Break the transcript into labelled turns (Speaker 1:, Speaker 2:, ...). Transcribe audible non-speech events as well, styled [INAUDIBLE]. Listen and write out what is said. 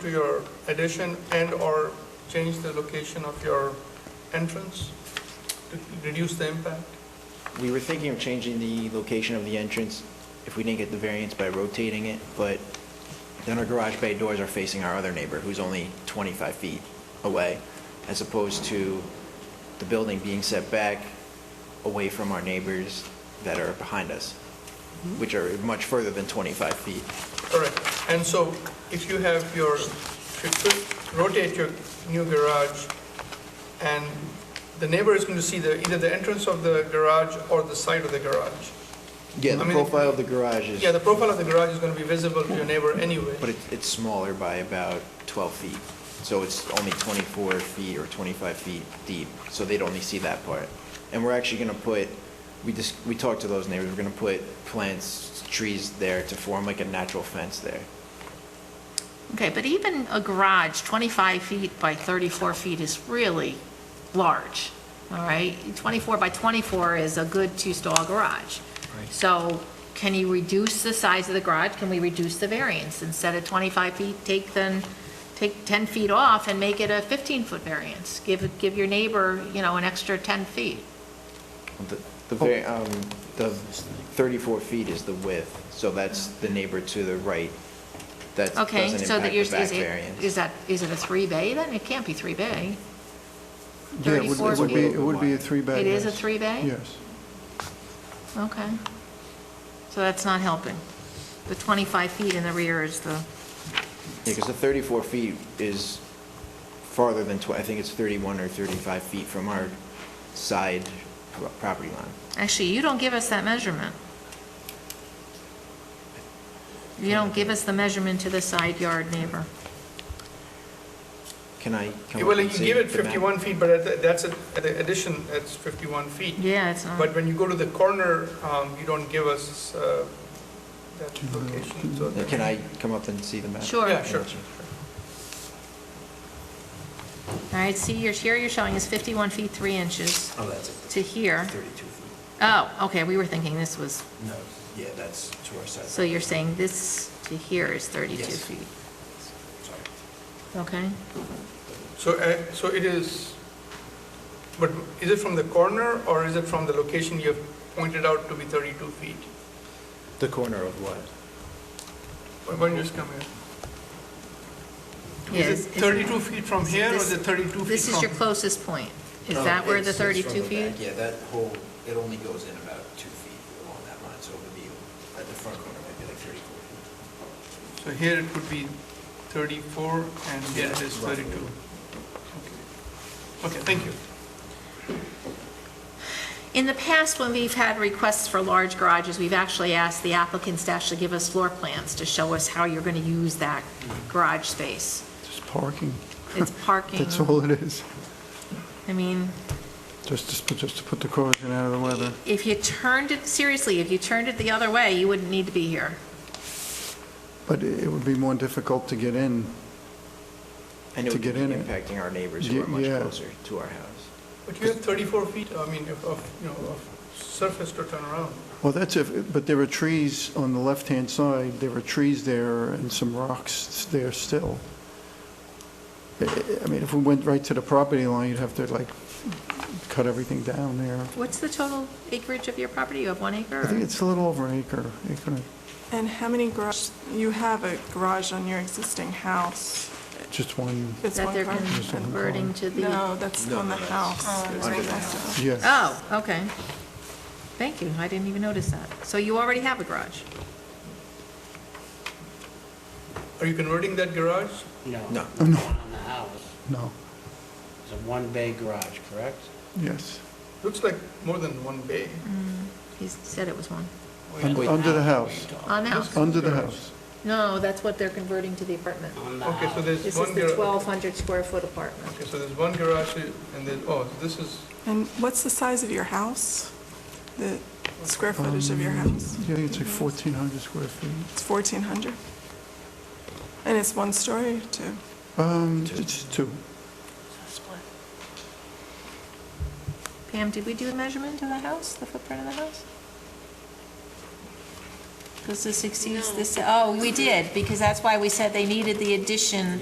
Speaker 1: to your addition and/or change the location of your entrance to reduce the impact?
Speaker 2: We were thinking of changing the location of the entrance if we didn't get the variance by rotating it, but then our garage bay doors are facing our other neighbor, who's only 25 feet away, as opposed to the building being set back away from our neighbors that are behind us,
Speaker 1: Mm-hmm.
Speaker 2: which are much further than 25 feet.
Speaker 1: Correct. And so if you have your, if you could rotate your new garage, and the neighbor is going to see the, either the entrance of the garage or the side of the garage.
Speaker 2: Yeah, the
Speaker 1: I mean-
Speaker 2: profile of the garage is,
Speaker 1: Yeah, the profile of the garage is going to be visible to your neighbor anyway.
Speaker 2: but it's- it's smaller by about 12 feet, so it's only 24 feet or 25 feet deep, so they'd only see that part. And we're actually going to put, we just, we talked to those neighbors, we're going to put plants, trees there to form like a natural fence there.
Speaker 3: Okay, but even a garage, 25 feet by 34 feet is really large, all right? 24 by 24 is a good two-stall garage. So can you reduce the size of the garage? Can we reduce the variance? Instead of 25 feet, take then, take 10 feet off and make it a 15-foot variance. Give, give your neighbor, you know, an extra 10 feet.
Speaker 2: The- The,
Speaker 4: Oh.
Speaker 2: very, um, the 34 feet is the width, so that's the neighbor to the right. That
Speaker 3: Okay,
Speaker 2: doesn't
Speaker 3: so that
Speaker 2: impact
Speaker 3: you're,
Speaker 2: the
Speaker 3: is
Speaker 2: back
Speaker 3: it, is
Speaker 2: variance.
Speaker 3: that, is it a three-bay then? It can't be three-bay.
Speaker 4: Yeah, it would-
Speaker 3: 34
Speaker 4: it would be, it would be a
Speaker 2: It
Speaker 4: three-bay.
Speaker 3: It is a
Speaker 4: yes.
Speaker 3: three-bay?
Speaker 4: Yes.
Speaker 3: Okay. So that's not helping. The 25 feet in the rear is the,
Speaker 2: Because the 34 feet is farther than, tw- I think it's 31 or 35 feet from our side pro- property line.
Speaker 3: actually, you don't give us that measurement. You don't give us the measurement to the side yard neighbor.
Speaker 2: Can I come up
Speaker 1: Well, you
Speaker 2: and see
Speaker 1: give it
Speaker 2: the map?
Speaker 1: 51 feet, but at the- that's, a- at the addition, that's 51 feet.
Speaker 3: Yeah, it's not.
Speaker 1: But when you go to the corner, um, you don't give us uh, that location, so.
Speaker 2: Can I come up and see the map?
Speaker 3: Sure.
Speaker 1: Yeah, sure.
Speaker 3: All right, see, your, here you're showing is 51 feet 3 inches
Speaker 5: Oh, that's it.
Speaker 3: to here.
Speaker 5: 32 feet.
Speaker 3: Oh, okay, we were thinking this was,
Speaker 5: No, yeah, that's to our side.
Speaker 3: so you're saying this to here is 32
Speaker 5: Yes.
Speaker 3: feet?
Speaker 5: Sorry.
Speaker 3: Okay?
Speaker 1: So, uh, so it is, but is it from the corner or is it from the location you have pointed out to be 32 feet?
Speaker 2: The corner of what?
Speaker 1: Why don't you just come here?
Speaker 3: Yeah,
Speaker 1: Is
Speaker 3: is-
Speaker 1: it
Speaker 3: is-
Speaker 1: 32 feet from here or
Speaker 3: this-
Speaker 1: is it 32 feet from?
Speaker 3: This is your closest point. Is
Speaker 5: Oh,
Speaker 3: that where
Speaker 5: it's-
Speaker 3: the
Speaker 5: it's
Speaker 3: 32
Speaker 5: from the
Speaker 3: feet?
Speaker 5: back. Yeah, that whole, it only goes in about two feet along that line, so it would be, at the front corner, maybe like 34 feet.
Speaker 1: So here it would be 34 and here it
Speaker 5: Yeah,
Speaker 1: is
Speaker 5: roughly.
Speaker 1: 32. Okay, Okay, thank you.
Speaker 3: In the past, when we've had requests for large garages, we've actually asked the applicants to actually give us floor plans to show us how you're going to use that
Speaker 5: Mm-hmm.
Speaker 3: garage space.
Speaker 4: Just parking.
Speaker 5: [LAUGHS]
Speaker 3: It's parking,
Speaker 4: That's all it is.
Speaker 3: I mean,
Speaker 4: Just, just, put- just to put the caution out of the weather.
Speaker 3: if you turned it, seriously, if you turned it the other way, you wouldn't need to be here.
Speaker 4: But it it would be more difficult to get in.
Speaker 2: And it
Speaker 4: To
Speaker 2: would be
Speaker 4: get in it.
Speaker 2: impacting our neighbors who
Speaker 4: Ye-
Speaker 2: are much
Speaker 4: yeah.
Speaker 2: closer to our house.
Speaker 1: But you have 34 feet, I mean, of- of, you know, of surface to turn around.
Speaker 4: Well, that's if, but there are trees on the left-hand side, there are trees there and some rocks there still. I- I I mean, if we went right to the property line, you'd have to like cut everything down there.
Speaker 3: What's the total acreage of your property? You have one acre?
Speaker 4: I think it's a little over an acre, acre,
Speaker 6: And how many garage, you have a garage on your existing house?
Speaker 4: just one,
Speaker 6: It's
Speaker 3: That
Speaker 6: one
Speaker 3: they're
Speaker 6: car.
Speaker 3: converting to the,
Speaker 6: No, that's
Speaker 2: No,
Speaker 6: on
Speaker 2: no,
Speaker 6: the
Speaker 2: that's-
Speaker 6: house.
Speaker 2: that's under the house.
Speaker 4: yeah.
Speaker 3: oh, okay. Thank you, I didn't even notice that. So you already have a garage?
Speaker 1: Are you converting that garage?
Speaker 7: No.
Speaker 2: No.
Speaker 7: The one on the house
Speaker 4: No,
Speaker 7: is a one-bay garage, correct?
Speaker 4: yes.
Speaker 1: Looks like more than one bay.
Speaker 3: He said it was one.
Speaker 4: Un-
Speaker 7: Wait,
Speaker 4: Under the
Speaker 7: what are you
Speaker 4: house.
Speaker 7: talking
Speaker 3: On the house?
Speaker 4: Under the house.
Speaker 3: No, that's what they're converting to the apartment.
Speaker 7: about? On the
Speaker 1: Okay, so
Speaker 7: house.
Speaker 1: there's one.
Speaker 3: Mm-hmm. This is the
Speaker 1: gar-
Speaker 3: 1,200 square foot apartment.
Speaker 1: Okay, so there's one garage and then, oh, this is,
Speaker 6: And what's the size of your house? The square footage of your
Speaker 4: Um,
Speaker 6: house?
Speaker 4: Yeah, I think it's like 1,400 square feet.
Speaker 6: It's 1,400? And it's one story, too?
Speaker 4: Um, it's two.
Speaker 3: Pam, did we do a measurement of the house, the footprint of the house? Because this exceeds this, oh, we did, because that's why we said they needed the addition